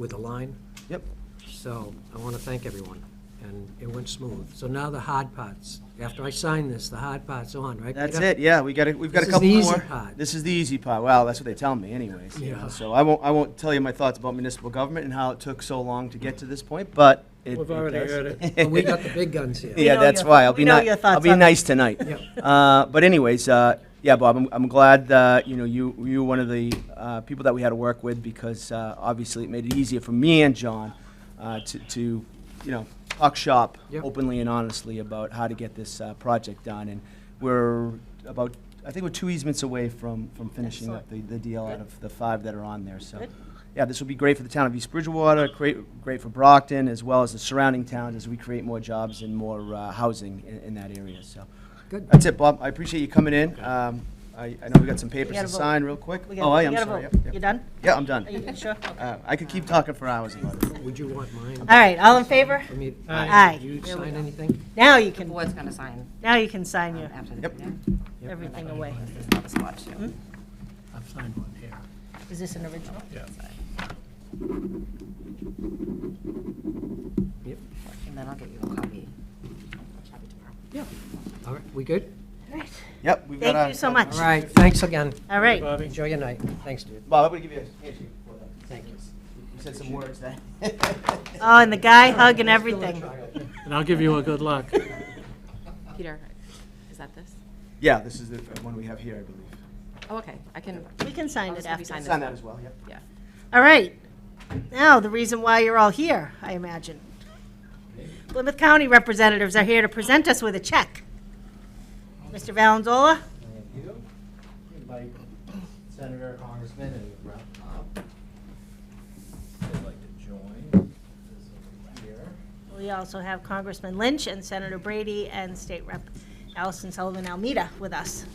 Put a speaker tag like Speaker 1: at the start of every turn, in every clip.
Speaker 1: with a line.
Speaker 2: Yep.
Speaker 1: So I want to thank everyone, and it went smooth. So now the hard parts. After I sign this, the hard part's on, right?
Speaker 2: That's
Speaker 1: Peter?
Speaker 2: it, yeah, we got a, we've got a
Speaker 1: This is the
Speaker 2: couple
Speaker 1: easy
Speaker 2: more.
Speaker 1: part.
Speaker 2: This is the easy part, well, that's what they tell me anyways. you know,
Speaker 1: Yeah.
Speaker 2: So I won't, I won't tell you my thoughts about municipal government and how it took so long to get to this point, but it.
Speaker 3: We've already
Speaker 2: does.
Speaker 3: heard it.
Speaker 1: But we got the big guns here.
Speaker 2: Yeah,
Speaker 4: know
Speaker 2: that's
Speaker 4: your-
Speaker 2: why, I'll
Speaker 4: we
Speaker 2: be
Speaker 4: know
Speaker 2: nice,
Speaker 4: your
Speaker 2: I'll
Speaker 4: thoughts
Speaker 2: be
Speaker 4: on it.
Speaker 2: nice tonight. Uh, But anyways, uh, yeah, Bob, I'm, I'm glad that, you know, you, you were one of the uh, people that we had to work with because uh, obviously it made it easier for me and John uh, to, to, you know, talk shop
Speaker 1: Yep.
Speaker 2: openly and honestly about how to get this uh, project done. And we're about, I think we're two easements away from, from finishing up the, the deal out of the five that are on there, so.
Speaker 4: Good.
Speaker 2: Yeah, this will be great for the town of East Bridgewater, great, great for Brockton, as well as the surrounding towns as we create more jobs and more uh, housing in, in that area, so.
Speaker 1: Good.
Speaker 2: That's it, Bob. I appreciate you coming in. Um, I, I know we got some papers
Speaker 4: gotta
Speaker 2: to
Speaker 4: vote.
Speaker 2: sign real quick.
Speaker 4: We gotta-
Speaker 2: Oh, I
Speaker 4: we
Speaker 2: am
Speaker 4: gotta
Speaker 2: sorry.
Speaker 4: vote.
Speaker 2: Yep, yep.
Speaker 4: You done?
Speaker 2: Yeah, I'm
Speaker 4: Are you
Speaker 2: done.
Speaker 4: sure? Okay.
Speaker 2: Uh, I could keep talking for hours about it.
Speaker 1: Would you want mine?
Speaker 4: All right, all in favor?
Speaker 1: Aye.
Speaker 4: Aye.
Speaker 1: Did you
Speaker 4: There we
Speaker 1: sign
Speaker 4: go.
Speaker 1: anything?
Speaker 4: Now you
Speaker 5: The
Speaker 4: can,
Speaker 5: board's gonna sign um,
Speaker 4: now you can sign your,
Speaker 5: after the
Speaker 2: Yep.
Speaker 5: meeting.
Speaker 1: Yep.
Speaker 4: everything away.
Speaker 5: This is not the spot, too.
Speaker 3: I've signed one here.
Speaker 4: Is this an original?
Speaker 3: Yeah.
Speaker 1: Yep.
Speaker 5: And then I'll get you a copy. Copy tomorrow.
Speaker 1: Yeah. All right, we good?
Speaker 2: Yep, we've got
Speaker 4: Thank
Speaker 2: our-
Speaker 4: you so much.
Speaker 1: All right, thanks again.
Speaker 4: All right.
Speaker 3: Bobby?
Speaker 1: Enjoy your night. Thanks, dude.
Speaker 2: Bob, I'm gonna give you a handshake for that.
Speaker 1: Thank you.
Speaker 2: You said some words there.
Speaker 4: Oh, and the guy hug and everything.
Speaker 3: And I'll give you a good luck.
Speaker 5: Peter, is that this?
Speaker 2: Yeah, this is the uh, one we have here, I believe.
Speaker 5: Oh, okay, I can.
Speaker 4: We can sign
Speaker 5: I'll
Speaker 4: it
Speaker 5: just have you
Speaker 4: after.
Speaker 5: sign this
Speaker 2: Sign
Speaker 5: one.
Speaker 2: that as well, yep.
Speaker 5: Yeah.
Speaker 4: All right. Now, the reason why you're all here, I imagine. Plymouth County representatives are here to present us with a check. Mr. Valenzola?
Speaker 6: Thank you. Invite Senator, Congressman, and Rep. Pop. If they'd like to join, this over here.
Speaker 4: We also have Congressman Lynch and Senator Brady and State Rep. Allison Sullivan Almeida with us.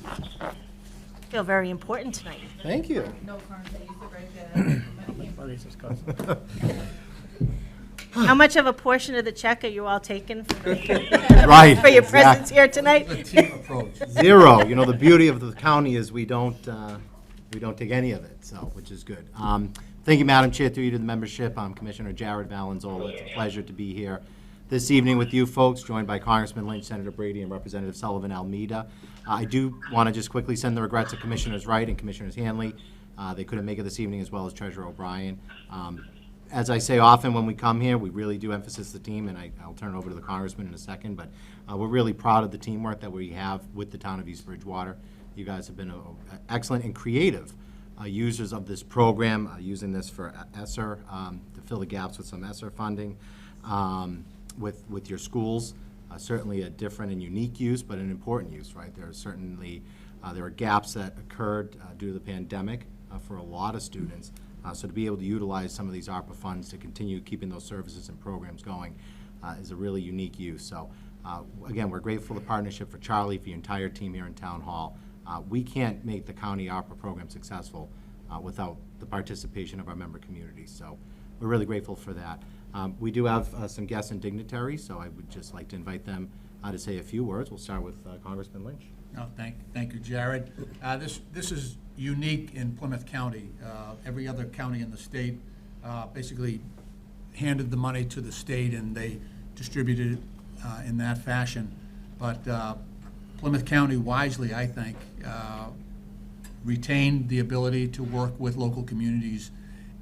Speaker 4: Feel very important tonight.
Speaker 6: Thank you.
Speaker 3: Buddy's just got some-
Speaker 4: How much of a portion of the check are you all taking for
Speaker 6: Right.
Speaker 4: for your
Speaker 6: exact-
Speaker 4: presence here tonight?
Speaker 6: Zero. You know, the beauty of the county is we don't, uh, we don't take any of it, so, which is good. Um, Thank you, Madam Chair, through you to the membership. I'm Commissioner Jared Valenzola. It's a pleasure to be here this evening with you folks, joined by Congressman Lynch, Senator Brady, and Representative Sullivan Almeida. Uh, I do want to just quickly send the regrets of Commissioners Wright and Commissioners Hanley. Uh, They couldn't make it this evening, as well as Treasurer O'Brien. Um, as I say often when we come here, we really do emphasize the team, and I, I'll turn it over to the congressman in a second, but uh, we're really proud of the teamwork that we have with the town of East Bridgewater. You guys have been uh, excellent and creative uh, users of this program, uh, using this for ESSER, um, to fill the gaps with some E ESSER funding, um, with, with your schools. Uh, Certainly a different and unique use, but an important use, right? There are certainly, uh, there are gaps that occurred uh, due to the pandemic uh, for a lot of students. Uh, So to be able to utilize some of these ARPA funds to continue keeping those services and programs going uh, is a really unique use. So uh, again, we're grateful for the partnership for Charlie, for your entire team here in Town Hall. Uh, We can't make the county ARPA program successful uh, without the participation of our member community. So we're really grateful for that. Um, We do have uh, some guests and dignitaries, so I would just like to invite them uh, to say a few words. We'll start with uh, Congressman Lynch.
Speaker 7: No, Oh, thank, thank you, Jared. Uh, This, this is unique in Plymouth County. Uh, Every other county in the state uh, basically handed the money to the state and they distributed it uh, in that fashion. But uh, Plymouth County wisely, I think, uh, retain the ability to work with local communities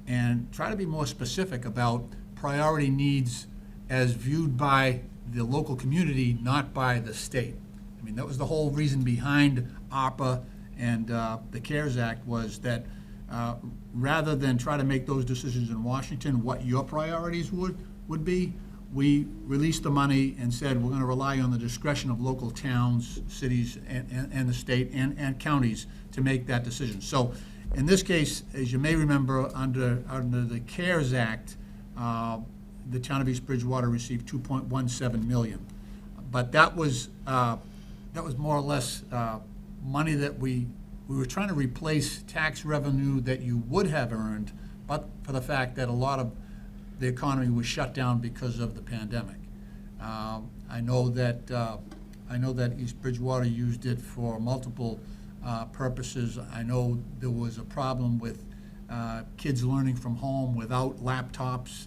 Speaker 7: and try to be more specific about priority needs as viewed by the local community, not by the state. I mean, that was the whole reason behind ARPA and uh, the CARES Act was that uh, rather than try to make those decisions in Washington, what your priorities would, would be, we released the money and said, we're going to rely on the discretion of local towns, cities, and, and- and the state, and, and counties to make that decision. So in this case, as you may remember, under, under the CARES Act, uh, the town of East Bridgewater received 2.17 million. But that was, uh, that was more or less uh, money that we, we were trying to replace tax revenue that you would have earned, but for the fact that a lot of the economy was shut down because of the pandemic. Um, I know that, uh, I know that East Bridgewater used it for multiple uh, purposes. I know there was a problem with uh, kids learning from home without laptops